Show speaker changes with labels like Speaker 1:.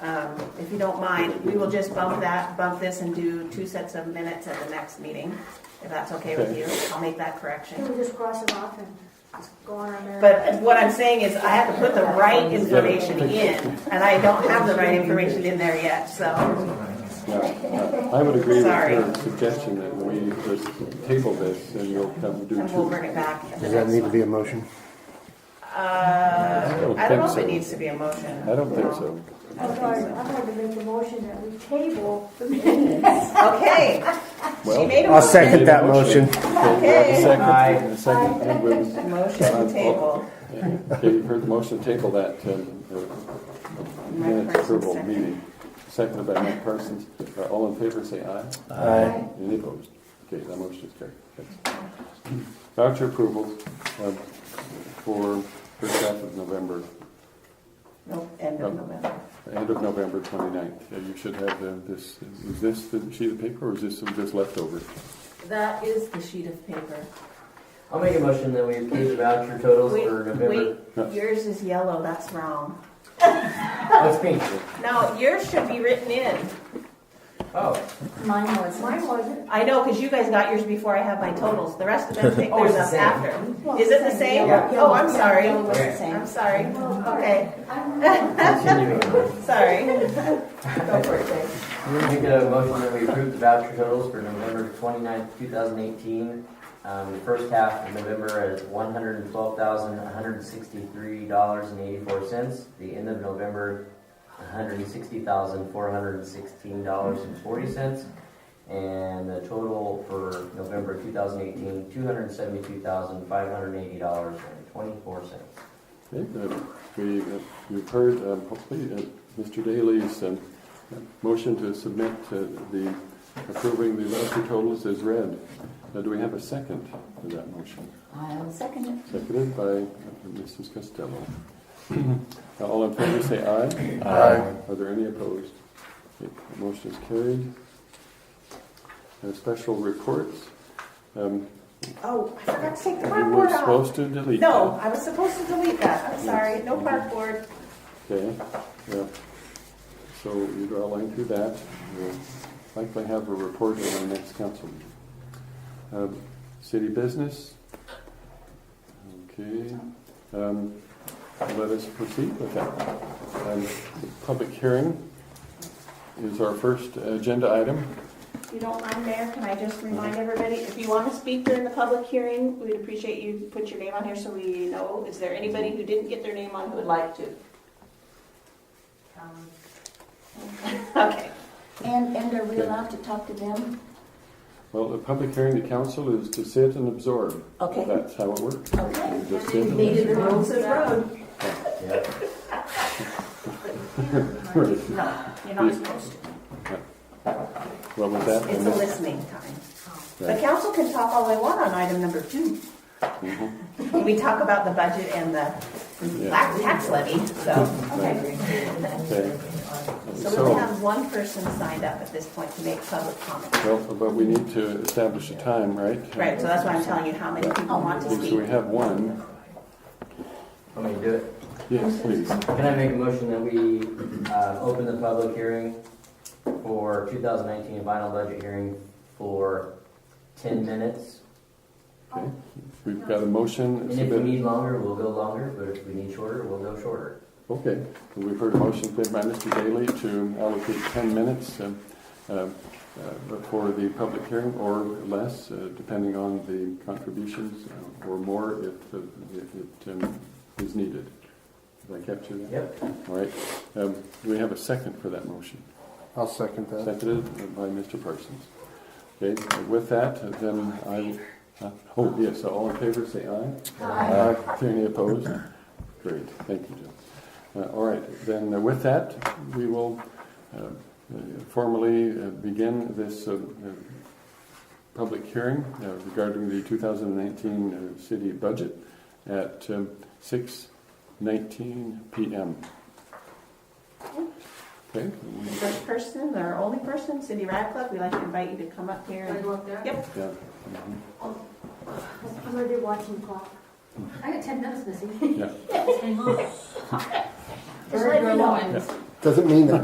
Speaker 1: Um, if you don't mind, we will just bump that, bump this and do two sets of minutes at the next meeting, if that's okay with
Speaker 2: Okay.
Speaker 1: you. I'll make that correction.
Speaker 3: Can we just cross it off and just go on our merry?
Speaker 1: But what I'm saying is I have to put the right information in, and I don't have the right information in there yet, so.
Speaker 2: Yeah, I would agree with
Speaker 1: Sorry.
Speaker 2: your suggestion that we just table this and you'll come do
Speaker 1: And we'll
Speaker 2: two.
Speaker 1: bring it back at the
Speaker 4: Does that
Speaker 1: next
Speaker 4: need to
Speaker 1: one.
Speaker 4: be a motion?
Speaker 1: Uh, I don't know if
Speaker 2: think
Speaker 1: it
Speaker 2: so.
Speaker 1: needs to be a motion.
Speaker 2: I don't think so.
Speaker 3: I'm sorry, I'm going to make a motion that we table the minutes.
Speaker 1: Okay, she
Speaker 2: Well,
Speaker 1: made a
Speaker 4: I'll
Speaker 1: motion.
Speaker 4: second that motion.
Speaker 2: Okay, we have a second, and a second, and we'll-
Speaker 1: Motion to table.
Speaker 2: Okay, you've heard the motion, table that, um, uh, minutes
Speaker 1: Parsons,
Speaker 2: approval
Speaker 1: second.
Speaker 2: meeting. Seconded by Mike Parsons, Uh, all in favor, say aye.
Speaker 4: Aye.
Speaker 2: Any opposed? Okay, that motion is carried. Thanks. Voucher approvals um, for first half of November,
Speaker 1: Nope, end of November.
Speaker 2: end of November 29th. Uh, You should have uh, this, is this the sheet of paper, or is this some just leftover?
Speaker 1: That is the sheet of paper.
Speaker 5: I'll make a motion that we approve the voucher totals
Speaker 1: Wait,
Speaker 5: for November.
Speaker 1: wait, yours is yellow, that's wrong.
Speaker 5: Oh, it's pink.
Speaker 1: No, yours should be written in.
Speaker 5: Oh,
Speaker 6: Mine was.
Speaker 3: Mine wasn't.
Speaker 1: I know, because you guys got yours before I had my totals. The rest of them take
Speaker 5: Oh,
Speaker 1: theirs
Speaker 5: it's the
Speaker 1: up
Speaker 5: same.
Speaker 1: after. Is it the same?
Speaker 5: Yeah.
Speaker 1: Oh, I'm sorry.
Speaker 6: Yellow was the same.
Speaker 1: I'm sorry. Okay,
Speaker 5: continuing on.
Speaker 1: sorry. Go for it, Dave.
Speaker 5: I'm gonna make a motion that we approve the voucher totals for November 29th, 2018. Um, the first half of November is $112,163.84. The end of November, $160,416.40. And the total for November 2018, $272,580.24.
Speaker 2: Okay, uh, We, uh, you've heard, um, hopefully, uh, Mr. Daly's um, motion to submit uh, the approving the voucher totals is read. Now, do we have a second to that motion?
Speaker 6: I'll second it.
Speaker 2: Seconded by Mrs. Costello. Now, All in favor, say aye.
Speaker 4: Aye.
Speaker 2: Are there any opposed? Okay, the Motion is carried. Uh, Special reports. Um,
Speaker 1: Oh, I forgot to take the
Speaker 2: We
Speaker 1: park
Speaker 2: were
Speaker 1: board off.
Speaker 2: supposed to delete that.
Speaker 1: No, I was supposed to delete that. I'm sorry. No park board.
Speaker 2: Okay, yeah. So you draw a line through that. We'll likely have a report in our next council meeting. Um, City business? Okay, um, let us proceed with that. Um, the Public hearing is our first agenda item.
Speaker 1: If you don't mind, Mayor, can I just remind everybody, if you want to speak during the public hearing, we'd appreciate you put your name on here so we know. Is there anybody who didn't get their name on who would like to?
Speaker 6: Um,
Speaker 1: Okay.
Speaker 6: And, and are we allowed to talk to them?
Speaker 2: Well, the public hearing to council is to sit and absorb.
Speaker 6: Okay.
Speaker 2: That's how it works.
Speaker 6: Okay.
Speaker 2: You just sit and
Speaker 6: They did the
Speaker 1: Road
Speaker 6: rules
Speaker 1: says road.
Speaker 5: Yep.
Speaker 2: Right.
Speaker 1: No, you're not supposed to.
Speaker 2: Well, with that,
Speaker 1: It's
Speaker 2: and
Speaker 1: a
Speaker 2: this-
Speaker 1: listening time. The
Speaker 2: Right.
Speaker 1: council can talk all they want on item number two. We talk about the budget and the
Speaker 2: Yeah.
Speaker 1: tax levy, so.
Speaker 2: Okay. Okay.
Speaker 1: So we only have one person signed up at this point to make public comment.
Speaker 2: Well, but we need to establish a time, right?
Speaker 1: Right, so that's why I'm telling you how many people want to
Speaker 2: So
Speaker 1: speak.
Speaker 2: we have one.
Speaker 5: Want me to do it?
Speaker 2: Yes, please.
Speaker 5: Can I make a motion that we uh, open the public hearing for 2019 final budget hearing for 10 minutes?
Speaker 2: Okay. We've got a motion.
Speaker 5: And
Speaker 2: it's
Speaker 5: if we
Speaker 2: been-
Speaker 5: need longer, we'll go longer, but if we need shorter, we'll go shorter.
Speaker 2: Okay, we've heard a motion made by Mr. Daly to allocate 10 minutes um, um, uh, for the public hearing or less, uh, depending on the contributions, uh, or more if uh, if it um, is needed. Did I capture that?
Speaker 5: Yep.
Speaker 2: All right. Um, Do we have a second for that motion?
Speaker 4: I'll second that.
Speaker 2: Seconded by Mr. Parsons. Okay, with that, then I, uh, oh, yes, so all in favor, say aye. Aye. Any opposed? Great, thank you, Jill. Uh, All right, then uh, with that, we will uh, formally uh, begin this uh, uh, public hearing uh, regarding the 2019 uh, city budget at um, 6:19 PM. Okay? we-
Speaker 1: First person, our only person, Cindy Radcliffe, we'd like to invite you to come up here.
Speaker 6: Can I
Speaker 1: and-
Speaker 6: go up there?
Speaker 1: Yep,
Speaker 2: Yeah.
Speaker 3: I'm going to be watching clock.
Speaker 6: I got ten minutes missing.
Speaker 2: Yeah.
Speaker 6: Just
Speaker 3: let me know.
Speaker 6: and
Speaker 4: Doesn't mean that